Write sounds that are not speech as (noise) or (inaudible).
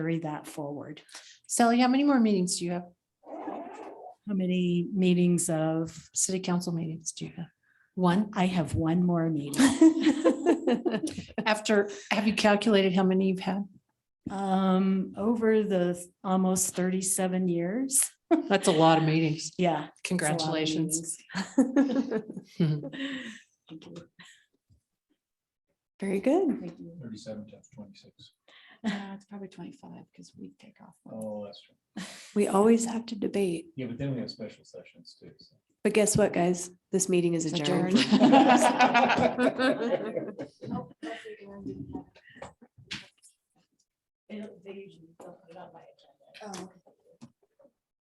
carry that forward. Sally, how many more meetings do you have? How many meetings of, City council meetings do you have? One? I have one more meeting. (laughs) After, have you calculated how many you've had? Um, over the almost thirty-seven years. That's a lot of meetings. Yeah. it's a lot of Congratulations. meetings. (laughs) (laughs) Mhm. Thank you. Very good. Thank you. Thirty-seven times twenty-six. Uh, It's probably twenty-five because we take off. one. Oh, that's true. We always have to debate. Yeah, but then we have special sessions too. so. But guess what, guys? This meeting is Adjourned. (laughs) adjourned. Oh, okay.